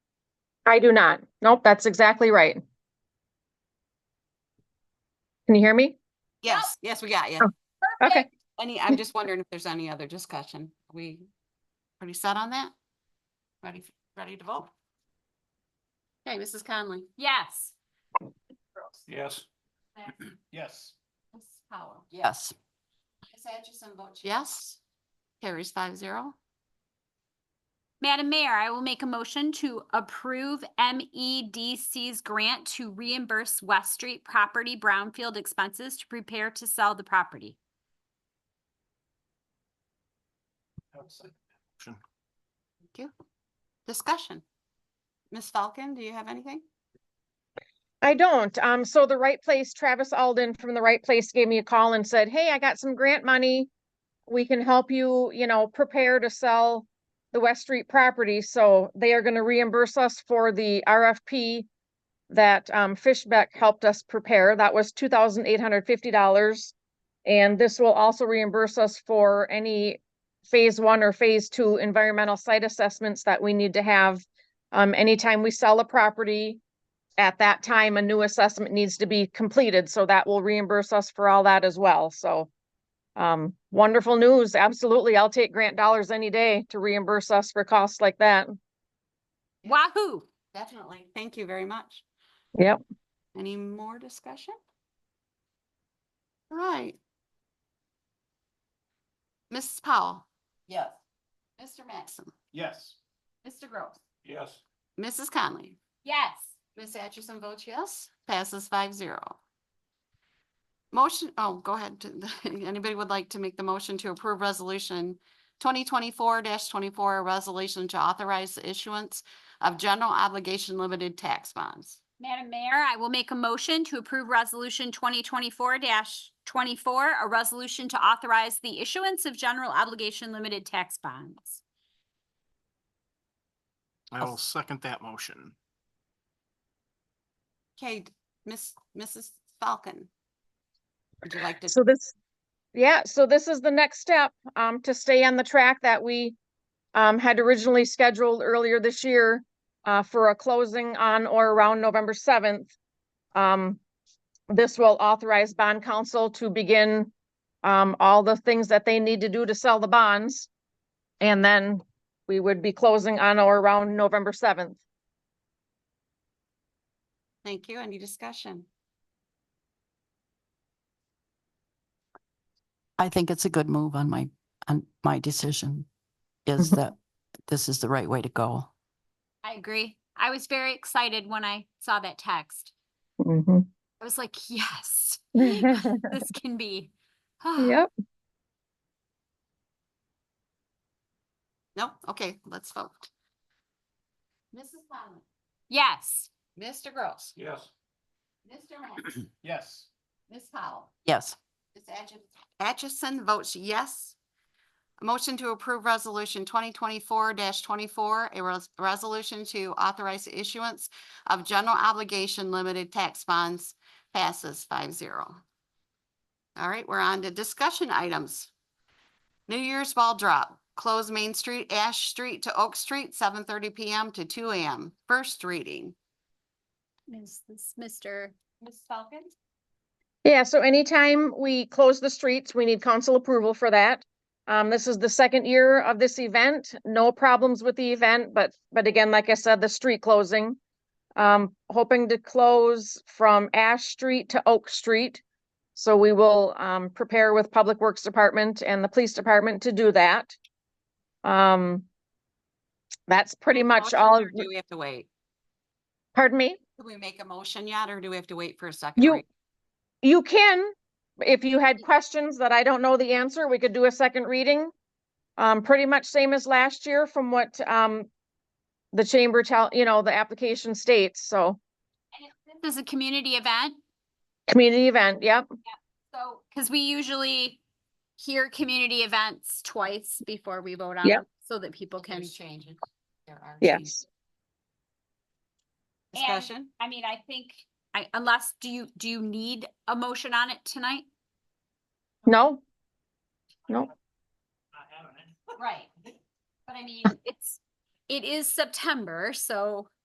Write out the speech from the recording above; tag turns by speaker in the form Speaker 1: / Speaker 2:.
Speaker 1: I do not. Nope, that's exactly right. Can you hear me?
Speaker 2: Yes, yes, we got you.
Speaker 1: Oh, Okay,
Speaker 2: Any, I'm just wondering if there's any other discussion. We pretty set on that? Ready, ready to vote? Okay, Mrs. Conley?
Speaker 3: Yes.
Speaker 4: Yes. Yes.
Speaker 2: Mrs. Powell? Yes. Ms. Atchison votes yes. Carries five zero.
Speaker 3: Madam Mayor, I will make a motion to approve MEDC's grant to reimburse West Street property brownfield expenses to prepare to sell the property.
Speaker 2: Thank you. Discussion. Ms. Falcon, do you have anything?
Speaker 1: I don't. Um, so the right place, Travis Alden from the right place gave me a call and said, hey, I got some grant money. We can help you, you know, prepare to sell the West Street property. So they are gonna reimburse us for the RFP that, um, Fishbeck helped us prepare. That was two thousand eight hundred fifty dollars. And this will also reimburse us for any phase one or phase two environmental site assessments that we need to have. Um, anytime we sell a property, at that time, a new assessment needs to be completed, so that will reimburse us for all that as well, so. Um, wonderful news, absolutely. I'll take grant dollars any day to reimburse us for costs like that.
Speaker 3: Wahoo!
Speaker 2: Definitely. Thank you very much.
Speaker 1: Yep.
Speaker 2: Any more discussion? All Right. Mrs. Powell? Yes. Mr. Maxim?
Speaker 4: Yes.
Speaker 2: Mr. Gross?
Speaker 4: Yes.
Speaker 2: Mrs. Conley?
Speaker 3: Yes.
Speaker 2: Ms. Atchison votes yes, passes five zero. Motion, oh, go ahead. Anybody would like to make the motion to approve resolution twenty twenty-four twenty-four, a resolution to authorize the issuance of general obligation limited tax bonds?
Speaker 3: Madam Mayor, I will make a motion to approve Resolution twenty twenty-four twenty-four, a resolution to authorize the issuance of general obligation limited tax bonds.
Speaker 5: I will second that motion.
Speaker 2: Okay, Miss, Mrs. Falcon. Would you like to?
Speaker 1: So this, yeah, so this is the next step, um, to stay on the track that we um, had originally scheduled earlier this year uh, for a closing on or around November seventh. Um, this will authorize bond counsel to begin um, all the things that they need to do to sell the bonds. And then we would be closing on or around November seventh.
Speaker 2: Thank you. Any discussion?
Speaker 6: I think it's a good move on my, on my decision is
Speaker 1: Mhm.
Speaker 6: that this is the right way to go.
Speaker 3: I agree. I was very excited when I saw that text. I was like, yes, this can be.
Speaker 1: Yep.
Speaker 2: No? Okay, let's vote. Mrs. Conley,
Speaker 3: Yes.
Speaker 2: Mr. Gross,
Speaker 4: Yes.
Speaker 2: Mr. Maxim,
Speaker 4: Yes.
Speaker 2: Ms. Powell.
Speaker 6: Yes,
Speaker 2: Ms. Atchison. votes yes. Motion to approve resolution twenty twenty-four twenty-four, a res- resolution to authorize the issuance of general obligation limited tax bonds passes five zero. All right, we're on to discussion items. New Year's ball drop, close Main Street, Ash Street to Oak Street, seven thirty PM to two AM, first reading.
Speaker 3: Is this Mr. Ms. Falcon?
Speaker 1: Yeah, so anytime we close the streets, we need council approval for that. Um, this is the second year of this event, no problems with the event, but, but again, like I said, the street closing. Um, hoping to close from Ash Street to Oak Street. So we will, um, prepare with Public Works Department and the Police Department to do that. Um, that's pretty much
Speaker 2: Motion,
Speaker 1: all,
Speaker 2: or
Speaker 1: of-
Speaker 2: Do we have to wait?
Speaker 1: pardon me?
Speaker 2: Do we make a motion yet, or do we have to wait for a second?
Speaker 1: You,
Speaker 2: reading?
Speaker 1: you can, if you had questions that I don't know the answer, we could do a second reading. Um, pretty much same as last year from what, um, the chamber tell, you know, the application states, so,
Speaker 3: This is a community event,
Speaker 1: community event, yep.
Speaker 3: so, because we usually hear community events twice before we vote on
Speaker 1: Yep.
Speaker 3: them, so that people can.
Speaker 2: There's changes. There are changes.
Speaker 1: Yes.
Speaker 3: And-
Speaker 2: Discussion?
Speaker 3: I mean, I think, I, unless, do you, do you need a motion on it tonight?
Speaker 1: No? No?
Speaker 3: Right. But I mean, it's, it is September, so